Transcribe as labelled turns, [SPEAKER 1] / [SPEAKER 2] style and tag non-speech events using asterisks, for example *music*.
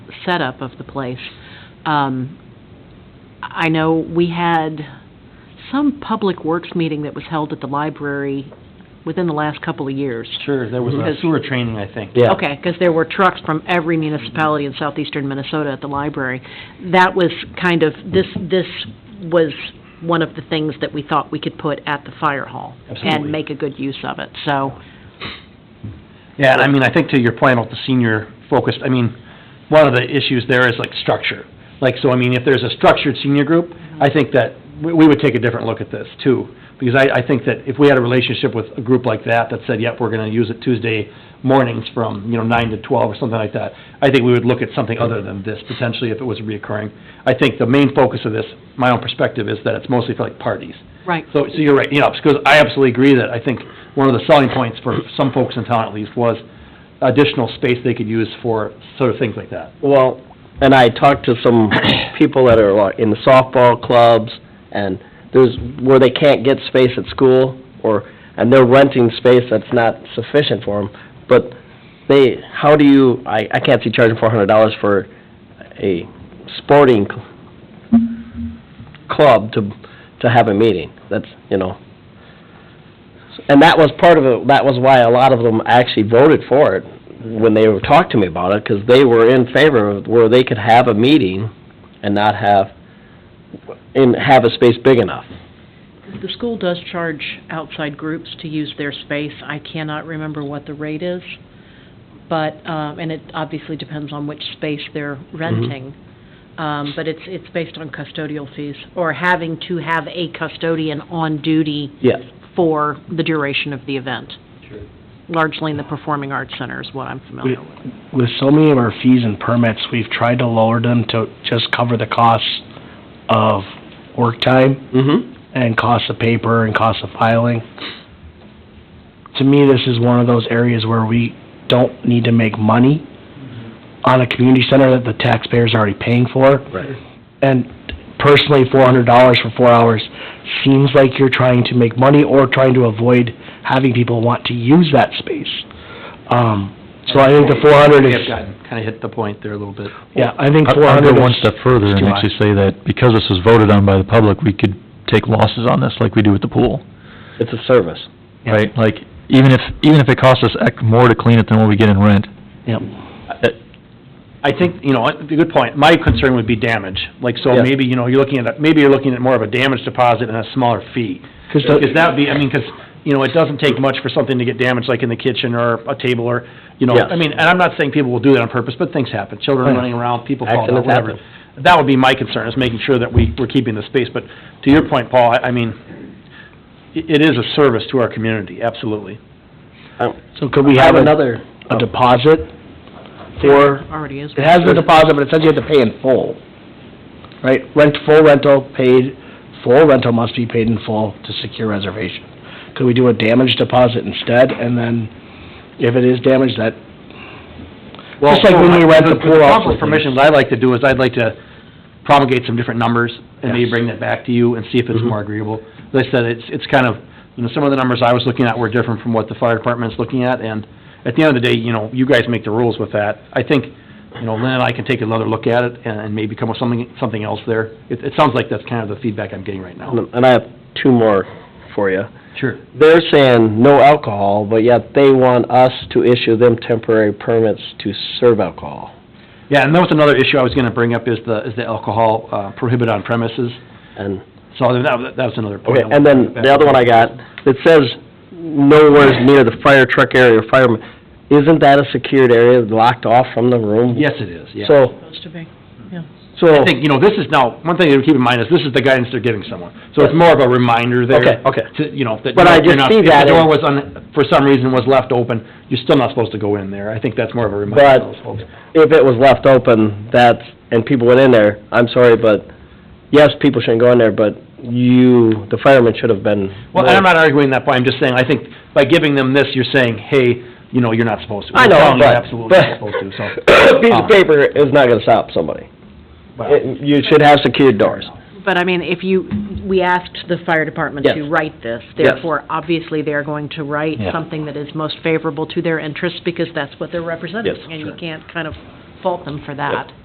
[SPEAKER 1] setup of the place. Um, I know we had some public works meeting that was held at the library within the last couple of years.
[SPEAKER 2] Sure, there was
[SPEAKER 1] Because-
[SPEAKER 2] a sewer training, I think.
[SPEAKER 3] Yeah.
[SPEAKER 1] Okay, because there were trucks from every municipality in southeastern Minnesota at the library. That was kind of, this, this was one of the things that we thought we could put at the fire hall and
[SPEAKER 2] Absolutely.
[SPEAKER 1] make a good use of it, so,
[SPEAKER 2] Yeah, and I mean, I think to your point about the senior focused, I mean, one of the issues there is like structure. Like, so I mean, if there's a structured senior group, I think that we, we would take a different look at this too. Because I, I think that if we had a relationship with a group like that, that said, yep, we're gonna use it Tuesday mornings from, you know, nine to twelve or something like that, I think we would look at something other than this potentially if it was reoccurring. I think the main focus of this, my own perspective, is that it's mostly for like parties.
[SPEAKER 1] right.
[SPEAKER 2] So, so you're right, you know, because I absolutely agree that I think one of the selling points for some folks in town at least was additional space they could use for sort of things like that.
[SPEAKER 3] Well, and I talked to some people that are like, in the softball clubs, and there's, where they can't get space at school, or, and they're renting space that's not sufficient for them, but they, how do you, I, I can't see charging four hundred dollars for a sporting cl- club to, to have a meeting, that's, you know. And that was part of it, that was why a lot of them actually voted for it, when they were talked to me about it, because they were in favor of where they could have a meeting and not have, and have a space big enough.
[SPEAKER 1] The school does charge outside groups to use their space. I cannot remember what the rate is, but, um, and it obviously depends on which space they're renting. Um, But it's, it's based on custodial fees, or having to have a custodian on duty
[SPEAKER 3] Yes.
[SPEAKER 1] for the duration of the event,
[SPEAKER 2] Sure.
[SPEAKER 1] largely in the Performing Arts Center is what I'm familiar with.
[SPEAKER 4] with so many of our fees and permits, we've tried to lower them to just cover the costs of work time
[SPEAKER 3] Mm-hmm.
[SPEAKER 4] and cost of paper and cost of filing. To me, this is one of those areas where we don't need to make money on a community center that the taxpayers are already paying for.
[SPEAKER 3] Right.
[SPEAKER 4] And personally, four hundred dollars for four hours seems like you're trying to make money or trying to avoid having people want to use that space. Um, so I think the four hundred
[SPEAKER 2] We
[SPEAKER 4] is.
[SPEAKER 2] have gotten, kind of hit the point there a little bit.
[SPEAKER 4] Yeah, I think
[SPEAKER 5] I'd
[SPEAKER 4] four
[SPEAKER 5] I'd
[SPEAKER 4] hundred
[SPEAKER 5] go
[SPEAKER 4] is...
[SPEAKER 5] one step further
[SPEAKER 4] is
[SPEAKER 5] and
[SPEAKER 4] too
[SPEAKER 5] actually say that because this was voted on by the public, we could take losses on this like we do with the pool,
[SPEAKER 3] It's a service.
[SPEAKER 4] Yeah.
[SPEAKER 5] right? Like, even if, even if it costs us ec- more to clean it than what we get in rent,
[SPEAKER 4] Yep.
[SPEAKER 2] I think, you know, a good point. My concern would be damage. Like, so
[SPEAKER 3] Yeah.
[SPEAKER 2] maybe, you know, you're looking at, a- maybe you're looking at more of a damage deposit and a smaller fee.
[SPEAKER 4] Because
[SPEAKER 2] Because that would be, I mean, because, you know, it doesn't take much for something to get damaged, like in the kitchen or a table or, you know,
[SPEAKER 3] Yes.
[SPEAKER 2] I mean, and I'm not saying people will do that on purpose, but things happen, children
[SPEAKER 4] Right.
[SPEAKER 2] running around, people falling out,
[SPEAKER 3] Accidents
[SPEAKER 2] whatever. That would be my concern, is making sure that we, we're keeping the space, but to your point, Paul, I, I mean, i- it is a service to our community, absolutely.
[SPEAKER 3] Um,
[SPEAKER 4] So could we
[SPEAKER 3] I
[SPEAKER 4] have um,
[SPEAKER 3] have
[SPEAKER 4] a
[SPEAKER 3] another,
[SPEAKER 4] a deposit for,
[SPEAKER 1] Already is.
[SPEAKER 4] it has the deposit, but it says you have to pay in full, right? Rent, full rental paid, full rental must be paid in full to secure reservation. Could we do a damage deposit instead, and then if it is damaged, that, Just like when we rent the pool out for
[SPEAKER 2] council's permission, what I'd like to do is, I'd like to promulgate some different numbers, and maybe
[SPEAKER 4] Yes.
[SPEAKER 2] bring that back to you and see if it's
[SPEAKER 3] Mhm.
[SPEAKER 2] more agreeable. As I said, it's, it's kind of, you know, some of the numbers I was looking at were different from what the fire department's looking at, and at the end of the day, you know, you guys make the rules with that. I think, you know, Lynn and I can take another look at it and, and maybe come up with something, something else there. It, it sounds like that's kind of the feedback I'm getting right now.
[SPEAKER 3] and I have two more for you.
[SPEAKER 2] Sure.
[SPEAKER 3] They're saying no alcohol, but yet they want us to issue them temporary permits to serve alcohol.
[SPEAKER 2] Yeah, and that was another issue I was gonna bring up, is the, is the alcohol uh, prohibited on premises,
[SPEAKER 3] And,
[SPEAKER 2] so that, that was another point.
[SPEAKER 3] okay, and then the other one I got, it says nowhere near the fire truck area or fireman. Isn't that a secured area locked off from the room?
[SPEAKER 2] Yes, it is, yeah.
[SPEAKER 3] So,
[SPEAKER 1] Supposed to be.
[SPEAKER 3] so.
[SPEAKER 2] I think, you know, this is now, one thing to keep in mind is this is the guidance they're giving someone. So it's more of a reminder there.
[SPEAKER 3] Okay, okay.
[SPEAKER 2] To, you know, that.
[SPEAKER 3] But I
[SPEAKER 2] you're
[SPEAKER 3] just
[SPEAKER 2] not-
[SPEAKER 3] see
[SPEAKER 2] If
[SPEAKER 3] that
[SPEAKER 2] the door
[SPEAKER 3] in-
[SPEAKER 2] was, un- for some reason was left open, you're still not supposed to go in there. I think that's more of a reminder
[SPEAKER 3] But
[SPEAKER 2] to those folks.
[SPEAKER 3] if it was left open, that's, and people went in there, I'm sorry, but, yes, people shouldn't go in there, but you, the firemen should have been.
[SPEAKER 2] Well, and I'm not arguing that point, I'm just saying, I think by giving them this, you're saying, hey, you know, you're not supposed to.
[SPEAKER 3] I
[SPEAKER 2] We're
[SPEAKER 3] know,
[SPEAKER 2] telling you
[SPEAKER 3] but,
[SPEAKER 2] Absolutely
[SPEAKER 3] but,
[SPEAKER 2] not supposed to, so.
[SPEAKER 3] a *coughs* *laughs* piece
[SPEAKER 2] um,
[SPEAKER 3] of paper is not gonna stop somebody.
[SPEAKER 2] but-
[SPEAKER 3] It- You should have secured doors.
[SPEAKER 1] But I mean, if you, we asked the fire department to
[SPEAKER 3] Yes.
[SPEAKER 1] write this,
[SPEAKER 3] Yes.
[SPEAKER 1] therefore, obviously, they're going to write
[SPEAKER 5] Yeah.
[SPEAKER 1] something that is most favorable to their interests, because that's what they're representing.
[SPEAKER 3] Yes,
[SPEAKER 1] And you
[SPEAKER 3] sure.
[SPEAKER 1] can't kind of fault them for that.